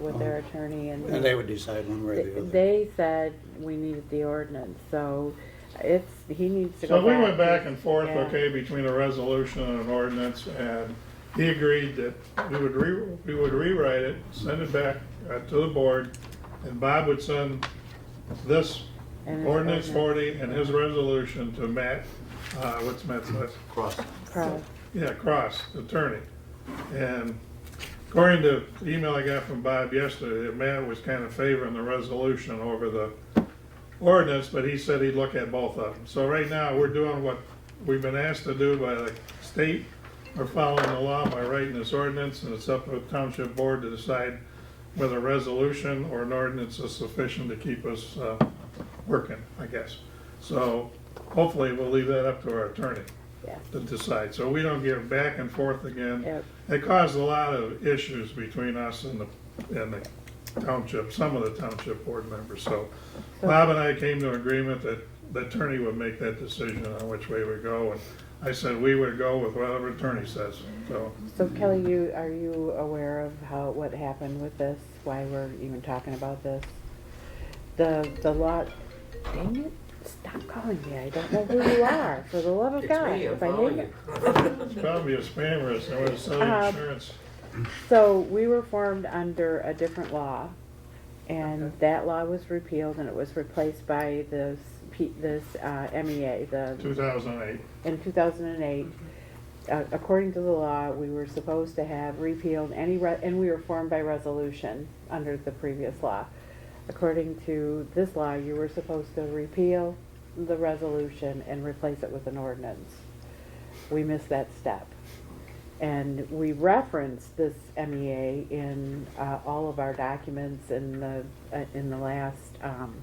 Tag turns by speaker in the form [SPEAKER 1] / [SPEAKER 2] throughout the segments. [SPEAKER 1] with their attorney and.
[SPEAKER 2] And they would decide one way or the other.
[SPEAKER 1] They said we needed the ordinance, so it's, he needs to go
[SPEAKER 3] So
[SPEAKER 1] back.
[SPEAKER 3] we went back and forth,
[SPEAKER 1] Yeah.
[SPEAKER 3] okay, between a resolution and an ordinance, and he agreed that we would re, we would rewrite it, send it back uh, to the board, and Bob would send this
[SPEAKER 1] And his ordinance.
[SPEAKER 3] ordinance forty and his resolution to Matt, uh, what's Matt's last?
[SPEAKER 2] Cross.
[SPEAKER 1] Cross.
[SPEAKER 3] Yeah, Cross, attorney. And according to the email I got from Bob yesterday, that Matt was kind of favoring the resolution over the ordinance, but he said he'd look at both of them. So right now, we're doing what we've been asked to do by the state. We're following the law by writing this ordinance, and it's up to the township board to decide whether a resolution or an ordinance is sufficient to keep us uh, working, I guess. So hopefully, we'll leave that up to our attorney
[SPEAKER 1] Yeah,
[SPEAKER 3] to decide, so we don't get back and forth again.
[SPEAKER 1] Yep.
[SPEAKER 3] It caused a lot of issues between us and the, and the township, some of the township board members, so Bob and I came to an agreement that the attorney would make that decision on which way we go, and I said we would go with whatever attorney says, so.
[SPEAKER 1] so Kelly, you, are you aware of how, what happened with this, why we're even talking about this? The, the law, dang it, stop calling me, I don't know who you are, for the love of
[SPEAKER 4] It's
[SPEAKER 1] Oh, God.
[SPEAKER 4] me, I'm
[SPEAKER 1] if I name
[SPEAKER 4] following
[SPEAKER 1] it-
[SPEAKER 4] you.
[SPEAKER 3] It's probably a spammer, it's, it was selling
[SPEAKER 1] Um,
[SPEAKER 3] insurance.
[SPEAKER 1] So we were formed under a different law, and that law was repealed and it was replaced by this, P- this uh, MEA, the,
[SPEAKER 3] 2008.
[SPEAKER 1] in two thousand and eight. Uh, According to the law, we were supposed to have repealed any, re- and we were formed by resolution under the previous law. According to this law, you were supposed to repeal the resolution and replace it with an ordinance. We missed that step. And we reference this MEA in uh, all of our documents in the, uh, in the last um,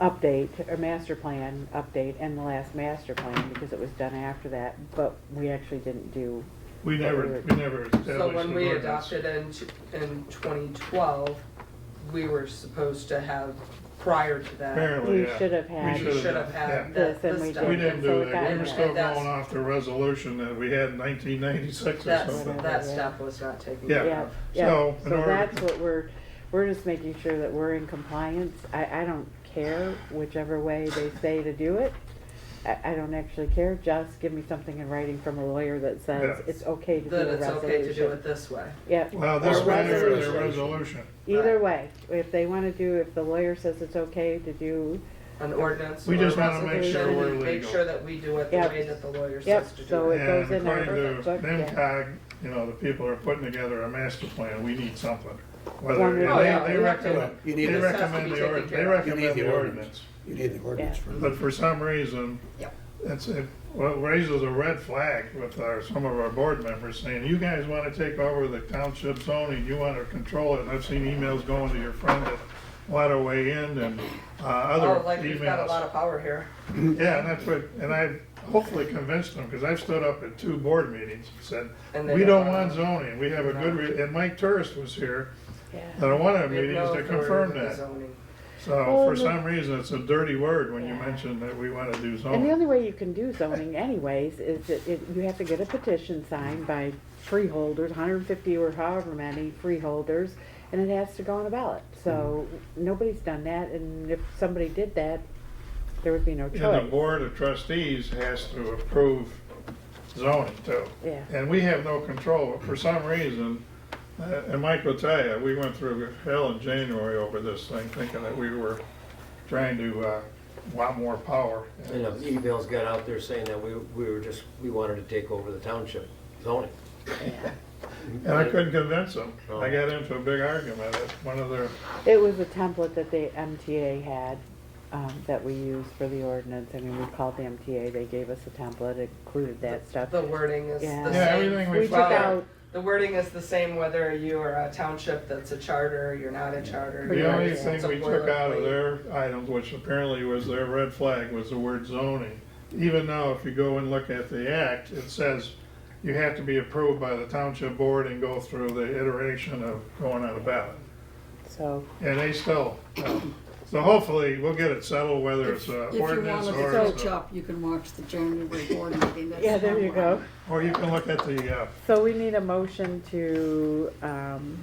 [SPEAKER 1] update, or master plan update, and the last master plan, because it was done after that, but we actually didn't do,
[SPEAKER 3] We never, we never established an
[SPEAKER 4] So when we
[SPEAKER 3] ordinance.
[SPEAKER 4] adopted in, t- in twenty twelve, we were supposed to have, prior to that,
[SPEAKER 3] Apparently,
[SPEAKER 1] we
[SPEAKER 3] Oh, yeah.
[SPEAKER 1] should have
[SPEAKER 3] We
[SPEAKER 1] had.
[SPEAKER 3] should've
[SPEAKER 4] we should have
[SPEAKER 3] done, yeah.
[SPEAKER 4] had
[SPEAKER 1] This
[SPEAKER 4] that,
[SPEAKER 1] and we
[SPEAKER 4] this
[SPEAKER 1] did.
[SPEAKER 3] We
[SPEAKER 4] done.
[SPEAKER 3] didn't
[SPEAKER 1] So
[SPEAKER 3] do
[SPEAKER 1] it got
[SPEAKER 3] that, we were
[SPEAKER 1] in
[SPEAKER 3] still
[SPEAKER 4] there.
[SPEAKER 3] going off the resolution that we had in nineteen ninety-six or
[SPEAKER 4] That's,
[SPEAKER 3] something.
[SPEAKER 4] that step was not taken.
[SPEAKER 3] Yeah.
[SPEAKER 1] Yeah,
[SPEAKER 3] So,
[SPEAKER 1] yeah,
[SPEAKER 3] in
[SPEAKER 1] so
[SPEAKER 3] order-
[SPEAKER 1] that's what we're, we're just making sure that we're in compliance. I, I don't care whichever way they say to do it. I, I don't actually care, just give me something in writing from a lawyer that says
[SPEAKER 3] Yeah.
[SPEAKER 1] it's okay to do
[SPEAKER 4] Then
[SPEAKER 1] a
[SPEAKER 4] it's okay to do
[SPEAKER 1] resolution.
[SPEAKER 4] it this way.
[SPEAKER 1] Yeah,
[SPEAKER 3] Well, this
[SPEAKER 1] Or
[SPEAKER 3] way or the
[SPEAKER 1] resolution.
[SPEAKER 3] resolution.
[SPEAKER 1] either way, if they wanna do, if the lawyer says it's okay to do,
[SPEAKER 4] An ordinance.
[SPEAKER 3] We
[SPEAKER 4] or
[SPEAKER 3] just
[SPEAKER 4] a
[SPEAKER 3] wanna make sure
[SPEAKER 4] resolution,
[SPEAKER 3] we're
[SPEAKER 4] Make
[SPEAKER 3] legal.
[SPEAKER 4] sure that we do it the
[SPEAKER 1] Yep.
[SPEAKER 4] way that the lawyer
[SPEAKER 1] Yep,
[SPEAKER 4] says to
[SPEAKER 1] so
[SPEAKER 4] do
[SPEAKER 1] it
[SPEAKER 4] it.
[SPEAKER 1] goes
[SPEAKER 3] And
[SPEAKER 1] in our
[SPEAKER 3] according to
[SPEAKER 1] book, yeah.
[SPEAKER 3] NIMCOG, you know, the people are putting together a master plan, we need something. Whether,
[SPEAKER 1] One
[SPEAKER 3] and
[SPEAKER 1] way or
[SPEAKER 4] another.
[SPEAKER 3] they, they
[SPEAKER 4] Oh, yeah, we have
[SPEAKER 3] recommend,
[SPEAKER 4] to-
[SPEAKER 2] You
[SPEAKER 3] they
[SPEAKER 2] need,
[SPEAKER 4] This has
[SPEAKER 2] the-
[SPEAKER 4] to
[SPEAKER 3] recommend
[SPEAKER 4] be
[SPEAKER 3] the
[SPEAKER 4] taken
[SPEAKER 3] ordinance, they
[SPEAKER 4] care of.
[SPEAKER 2] You
[SPEAKER 3] recommend
[SPEAKER 2] need
[SPEAKER 3] the
[SPEAKER 2] the
[SPEAKER 3] ordinance.
[SPEAKER 2] you need the ordinance
[SPEAKER 1] Yeah.
[SPEAKER 2] for
[SPEAKER 3] But for some reason,
[SPEAKER 4] Yep.
[SPEAKER 3] it's, it well, raises a red flag with our, some of our board members saying, you guys wanna take over the township zoning, you wanna control it. And I've seen emails going to your friend at Waterway End and, uh, other emails.
[SPEAKER 4] Oh, like we've got a lot of power here.
[SPEAKER 3] Yeah, and that's what, and I've hopefully convinced them, because I've stood up at two board meetings and said,
[SPEAKER 4] And they
[SPEAKER 3] we
[SPEAKER 4] don't
[SPEAKER 3] don't want
[SPEAKER 4] want it."
[SPEAKER 3] zoning, we have a good, re-" and Mike Turris was here at
[SPEAKER 1] yeah.
[SPEAKER 3] one of the
[SPEAKER 4] We have
[SPEAKER 3] meetings
[SPEAKER 4] no
[SPEAKER 3] to
[SPEAKER 4] authority
[SPEAKER 3] confirm
[SPEAKER 4] with the
[SPEAKER 3] that.
[SPEAKER 4] zoning.
[SPEAKER 3] So
[SPEAKER 1] Well,
[SPEAKER 3] for
[SPEAKER 1] the-
[SPEAKER 3] some reason, it's a dirty word when you
[SPEAKER 1] Yeah.
[SPEAKER 3] mention that we want to do
[SPEAKER 1] And the
[SPEAKER 3] zoning.
[SPEAKER 1] only way you can do zoning anyways is that it- you have to get a petition signed by freeholders, hundred and fifty or however many freeholders, and it has to go on a ballot. So
[SPEAKER 3] Mm-hmm.
[SPEAKER 1] nobody's done that, and if somebody did that, there would be no
[SPEAKER 3] And the
[SPEAKER 1] choice.
[SPEAKER 3] board of trustees has to approve zoning too.
[SPEAKER 1] Yeah.
[SPEAKER 3] And we have no control, but for some reason, uh, and Mike will tell you, we went through hell in January over this thing, thinking that we were trying to uh, want more power.
[SPEAKER 5] And uh, emails got out there saying that we, we were just, we wanted to take over the township zoning.
[SPEAKER 3] And I couldn't convince them. I got into a big argument at one of their,
[SPEAKER 1] It was a template that the MTA had, um, that we used for the ordinance. I mean, we called the MTA, they gave us a template, it included that stuff.
[SPEAKER 4] The wording is the
[SPEAKER 1] Yeah.
[SPEAKER 4] same.
[SPEAKER 3] yeah, everything
[SPEAKER 1] We
[SPEAKER 3] we
[SPEAKER 1] took
[SPEAKER 3] followed.
[SPEAKER 1] out,
[SPEAKER 4] The wording is the same whether you are a township that's a charter, you're not a charter.
[SPEAKER 1] Pretty
[SPEAKER 3] The
[SPEAKER 4] you're-
[SPEAKER 3] only
[SPEAKER 1] much, yeah.
[SPEAKER 3] thing
[SPEAKER 4] it's a
[SPEAKER 3] we took out of
[SPEAKER 4] boilerplate.
[SPEAKER 3] their items, which apparently was their red flag, was the word zoning. Even though if you go and look at the act, it says you have to be approved by the township board and go through the iteration of going on a ballot.
[SPEAKER 1] so,
[SPEAKER 3] And they still, uh, so hopefully we'll get it settled, whether it's
[SPEAKER 6] If
[SPEAKER 3] an
[SPEAKER 6] you want
[SPEAKER 3] ordinance
[SPEAKER 6] to
[SPEAKER 3] or,
[SPEAKER 6] catch
[SPEAKER 3] it's a-
[SPEAKER 6] up, you can watch the January board meeting. That's
[SPEAKER 1] yeah, there you go.
[SPEAKER 6] online.
[SPEAKER 3] or you can look at the, uh,
[SPEAKER 1] So we need a motion to, um,